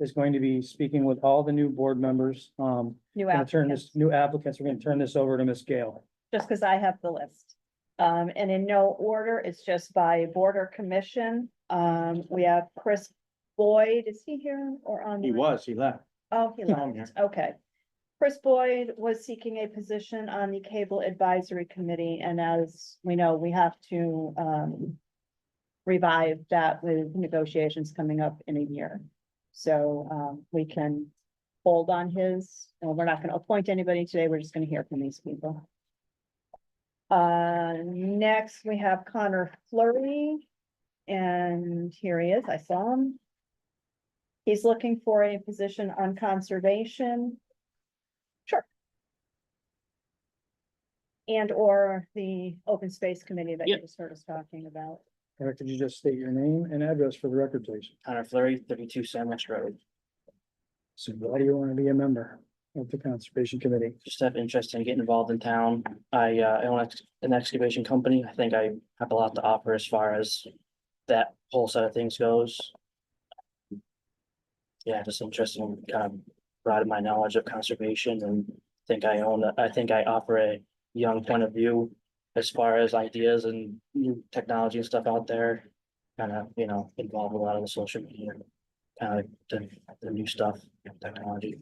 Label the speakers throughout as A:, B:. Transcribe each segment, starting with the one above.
A: is going to be speaking with all the new board members. Um,
B: New
A: gonna turn this,
B: applicants,
A: new applicants, we're gonna turn this over to Ms. Gale.
B: just because I have the list. Um, and in no order, it's just by border commission. Um, we have Chris Boyd, is he here or on?
A: He was, he left.
B: Oh, he
A: He's on
B: left, okay. Chris Boyd was seeking a position on the Cable Advisory Committee, and as we know, we have to um. Revive that with negotiations coming up in a year. So um, we can hold on his, and we're not gonna appoint anybody today, we're just gonna hear from these people. Uh, next, we have Connor Flurry. And here he is, I saw him. He's looking for a position on conservation. Sure. And or the open space committee that you just heard us talking about.
A: Eric, could you just state your name and address for the record, please?
C: Connor Flurry, thirty-two Sandwich Road.
A: So why do you want to be a member of the Conservation Committee?
C: Just have interest in getting involved in town. I, uh, I own ex- an excavation company. I think I have a lot to offer as far as that whole side of things goes. Yeah, just interested in kind of broadening my knowledge of conservation and think I own, a- I think I offer a young point of view as far as ideas and new technology and stuff out there. Kind of, you know, involved with a lot of the social media, kind of the, the new stuff, technology.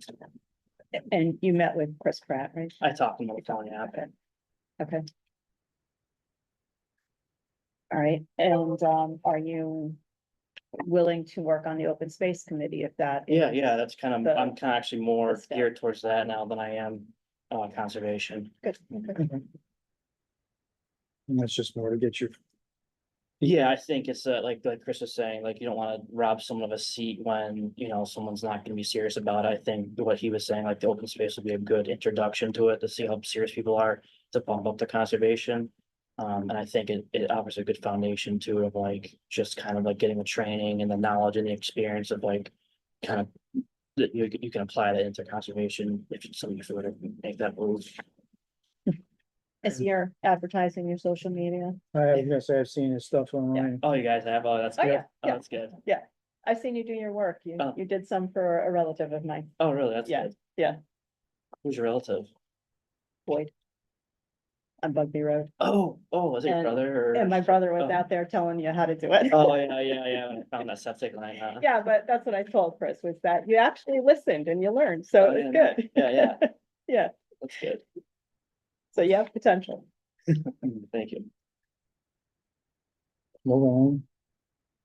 B: And you met with Chris Pratt, right?
C: I talked to him on the phone, yeah,
B: Okay. Okay. All right, and um, are you willing to work on the open space committee if that?
C: Yeah, yeah, that's kind of,
B: The-
C: I'm kind of actually more
B: the stuff.
C: geared towards that now than I am uh conservation.
B: Good.
A: And that's just more to get you.
C: Yeah, I think it's uh, like, like Chris was saying, like, you don't want to rob someone of a seat when, you know, someone's not gonna be serious about it. I think what he was saying, like, the open space would be a good introduction to it, to see how serious people are to bump up the conservation. Um, and I think it, it offers a good foundation to it of like, just kind of like getting the training and the knowledge and the experience of like, kind of, that you, you can apply that into conservation if it's something if you were to make that move.
B: Is your advertising, your social media?
A: I was gonna say, I've seen his stuff online.
C: Oh, you guys have, oh, that's
B: Oh,
C: good.
B: yeah,
C: Oh,
B: yeah.
C: that's good.
B: I've seen you do your work. You,
C: Oh.
B: you did some for a relative of mine,
C: Oh, really? That's
B: Yeah,
C: good.
B: yeah.
C: Who's your relative?
B: Boyd. On Bugby Road.
C: Oh, oh, was it your
B: And-
C: brother or?
B: And my brother was
C: Oh.
B: out there telling you how to do it.
C: Oh, yeah, yeah, yeah. I Found that septic line, huh?
B: Yeah, but that's what I told Chris was that you actually listened and you learned, so
C: Oh,
B: it's
C: yeah,
B: good.
C: Yeah, yeah.
B: Yeah.
C: That's good.
B: So you have potential.
C: Mm, Thank you.
A: Move on.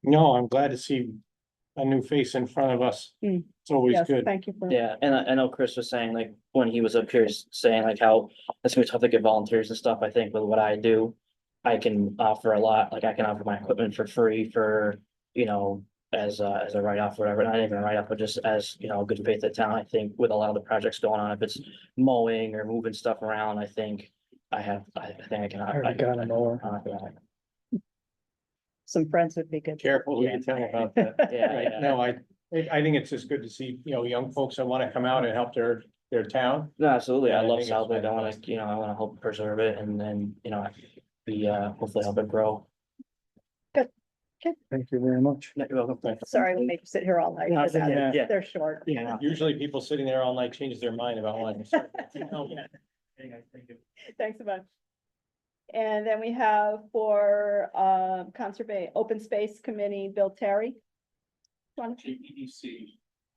D: No, I'm glad to see a new face in front of us.
B: Mm.
D: It's always
B: Yes,
D: good.
B: thank you for.
C: Yeah, and I, I know Chris was saying like, when he was up here s- saying like how it's gonna be tough to get volunteers and stuff, I think with what I do. I can offer a lot, like I can offer my equipment for free for, you know, as a, as a write-off, or whatever, not even a write-off, but just as, you know, good faith at town, I think with a lot of the projects going on, if it's mowing or moving stuff around, I think. I have, I I think I can.
A: I already got him over.
B: Some friends would be good.
D: Careful who you tell about that.
C: Yeah,
D: Right,
C: yeah.
D: no, I, I- I think it's just good to see, you know, young folks that wanna come out and help their, their town.
C: No, absolutely.
D: Yeah,
C: I
D: I
C: love
D: think it's
C: Southwick. I wanna,
D: fantastic.
C: you know, I wanna help preserve it and then, you know, be, uh, hopefully help it grow.
A: Thank you very much.
C: No, You're welcome.
B: Sorry, we make you sit here all night.
C: No,
B: for that.
A: yeah,
C: yeah.
B: They're short.
C: Yeah.
D: Usually people sitting there all night change their mind about wanting to. serve. No,
B: Thanks a bunch. And then we have for um conserva- open space committee, Bill Terry. Wanna-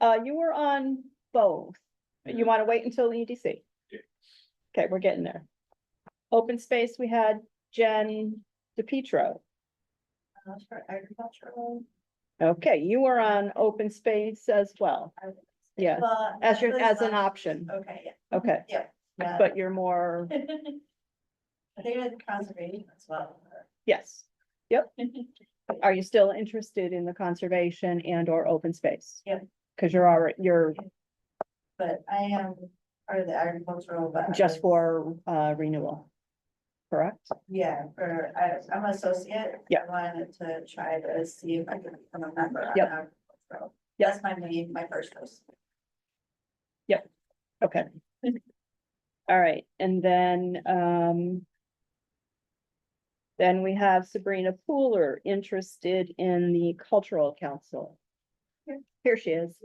B: Uh, you were on both. You want to wait until the EDC? Okay, we're getting there. Open space, we had Jen DePietro.
E: agricultural.
B: Okay, you were on open space as well.
E: I was-
B: Yeah,
E: Well,
B: as your,
E: really
B: as an
E: not-
B: option.
E: Okay,
B: Okay,
E: yeah, yeah.
B: but you're more,
E: I think I did conservation as well.
B: yes. Are you still interested in the conservation and or open space?
E: Yep.
B: Cause you're already, you're
E: But I am part of the agricultural, but. I
B: just
E: was-
B: for uh renewal. Correct?
E: Yeah, for, I, I'm an associate.
B: Yeah.
E: I wanted to try to see if I can become a member. on
B: Yep.
E: agricultural.
B: Yep.
E: That's my main, my first post.
B: Okay. All right, and then, um. Then we have Sabrina Pooler interested in the cultural council.
E: Here.
B: Here she is.